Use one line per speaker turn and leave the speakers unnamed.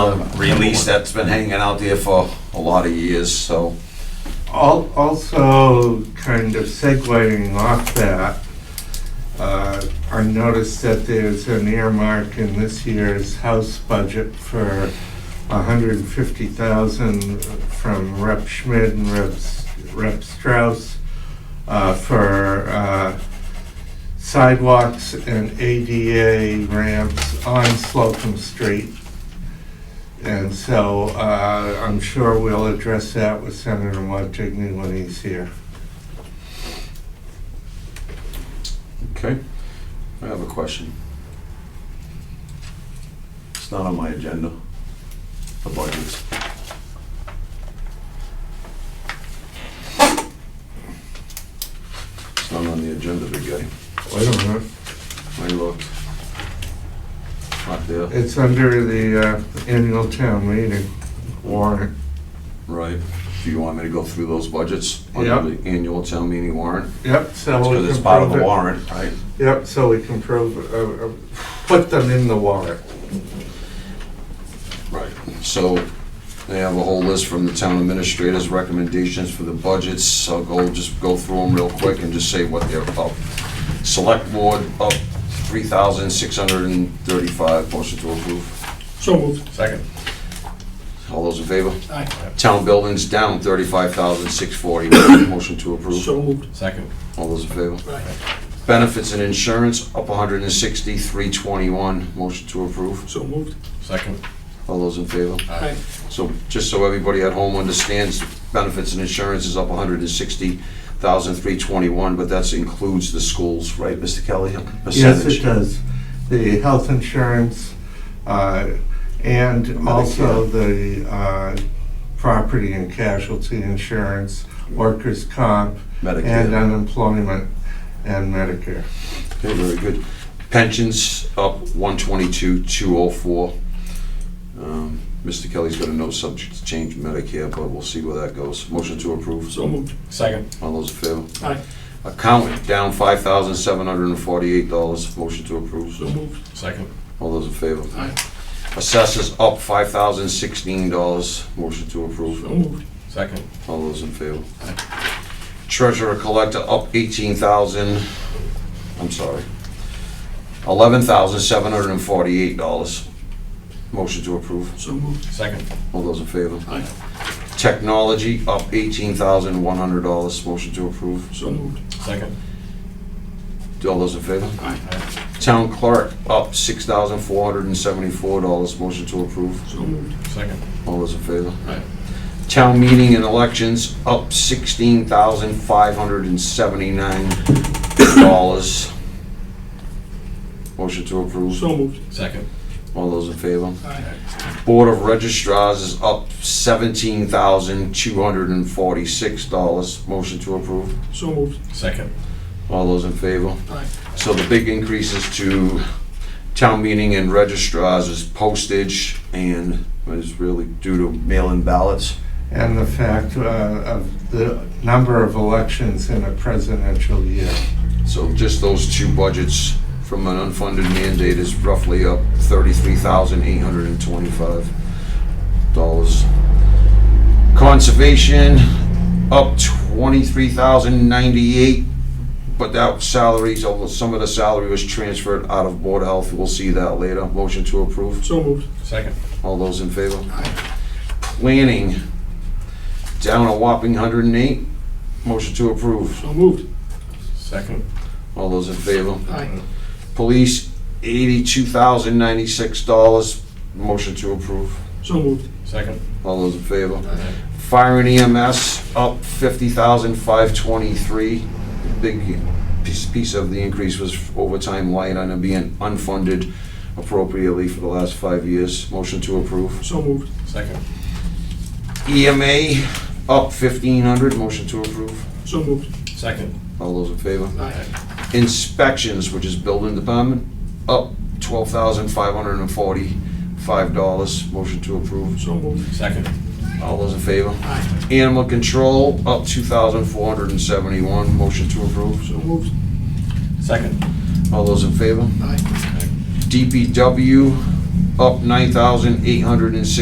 uh, release that's been hanging out there for a lot of years, so.
Al- Also, kind of segueing off that, uh, I noticed that there's an earmark in this year's House budget for $150,000 from Rep. Schmidt and Rep. S- Rep. Strauss uh, for uh, sidewalks and ADA ramps on Slocum Street. And so uh, I'm sure we'll address that with Senator Montigny when he's here.
Okay. I have a question. It's not on my agenda, the budgets. It's not on the agenda, big guy.
Wait a minute.
I looked. It's Not there.
It's under the uh, annual town meeting warrant.
Right. Do you want me to go through those budgets?
Yeah.
Under the annual town meeting warrant?
Yep, so we can
Because it's part of
prove
the
it.
warrant, right?
Yep, so we can prove, uh, uh, put them in the warrant.
Right, so they have a whole list from the town administrators' recommendations for the budgets. I'll go, just go through them real quick and just say what they're up. Select board up three thousand six hundred and thirty-five, motion to approve.
So moved.
Second.
All those in favor?
Aye.
Town buildings down thirty-five thousand six forty, motion to approve.
So moved.
Second.
All those in favor?
Aye.
Benefits and insurance up one hundred and sixty, three twenty-one, motion to approve.
So moved.
Second.
All those in favor?
Aye.
So just so everybody at home understands, benefits and insurance is up 160,321, but that includes the schools, right, Mr. Kelly?
Yes, it
Percentage.
does. The health insurance uh, and also the uh, property and casualty insurance, workers' comp, and
Medicare.
unemployment and Medicare.
Okay, very good. Pensions up 122,204. Um, Mr. Kelly's got a note subject to change Medicare, but we'll see where that goes. Motion to approve.
So moved.
Second.
All those in favor?
Aye.
Accountant down $5,748. Motion to approve.
So moved.
Second.
All those in favor?
Aye.
Assessors up five thousand sixteen dollars. Motion to
So
approve.
moved.
Second.
All those in favor? Treasurer collector up eighteen thousand, I'm sorry, eleven thousand seven hundred and forty-eight dollars. Motion to approve.
So moved.
Second.
All those in favor?
Aye.
Technology up eighteen thousand one hundred dollars. Motion to approve.
So moved.
Second.
All those in favor?
Aye.
Town clerk up six thousand four hundred and seventy-four dollars. Motion to approve.
So moved.
Second.
All those in favor?
Aye.
Town meeting and elections up sixteen thousand five hundred and seventy-nine dollars. Motion to approve.
So moved.
Second.
All those in favor?
Aye.
Board of registrars is up seventeen thousand two hundred and forty-six dollars. Motion to approve.
So moved.
Second.
All those in favor?
Aye.
So the big increases to town meeting and registrars is postage and is really due to mail-in ballots.
and the fact uh, of the number of elections in a presidential year.
So just those two budgets from an unfunded mandate is roughly up thirty-three thousand eight hundred and twenty-five dollars. Conservation up twenty-three thousand ninety-eight, but that salaries, although some of the salary was transferred out of Board of Health, we'll see that later. Motion to approve.
So moved.
Second.
All those in favor?
Aye.
Planning, down a whopping hundred and eight. Motion to approve.
So moved.
Second.
All those in favor?
Aye.
Police, eighty-two thousand ninety-six dollars. Motion to approve.
So moved.
Second.
All those in favor?
Aye.
Fire and EMS up fifty thousand five twenty-three. Big piece, piece of the increase was overtime light on it being unfunded appropriately for the last five years. Motion to approve.
So moved.
Second.
EMA up fifteen hundred. Motion to approve.
So moved.
Second.
All those in favor?
Aye.
Inspections, which is building department, up twelve thousand five hundred and forty-five dollars. Motion to approve.
So moved.
Second.
All those in favor?
Aye.
Animal control, up 2,471, motion to approve.
So moved.
Second.
All those in favor?
Aye.
DPW, up 9,860.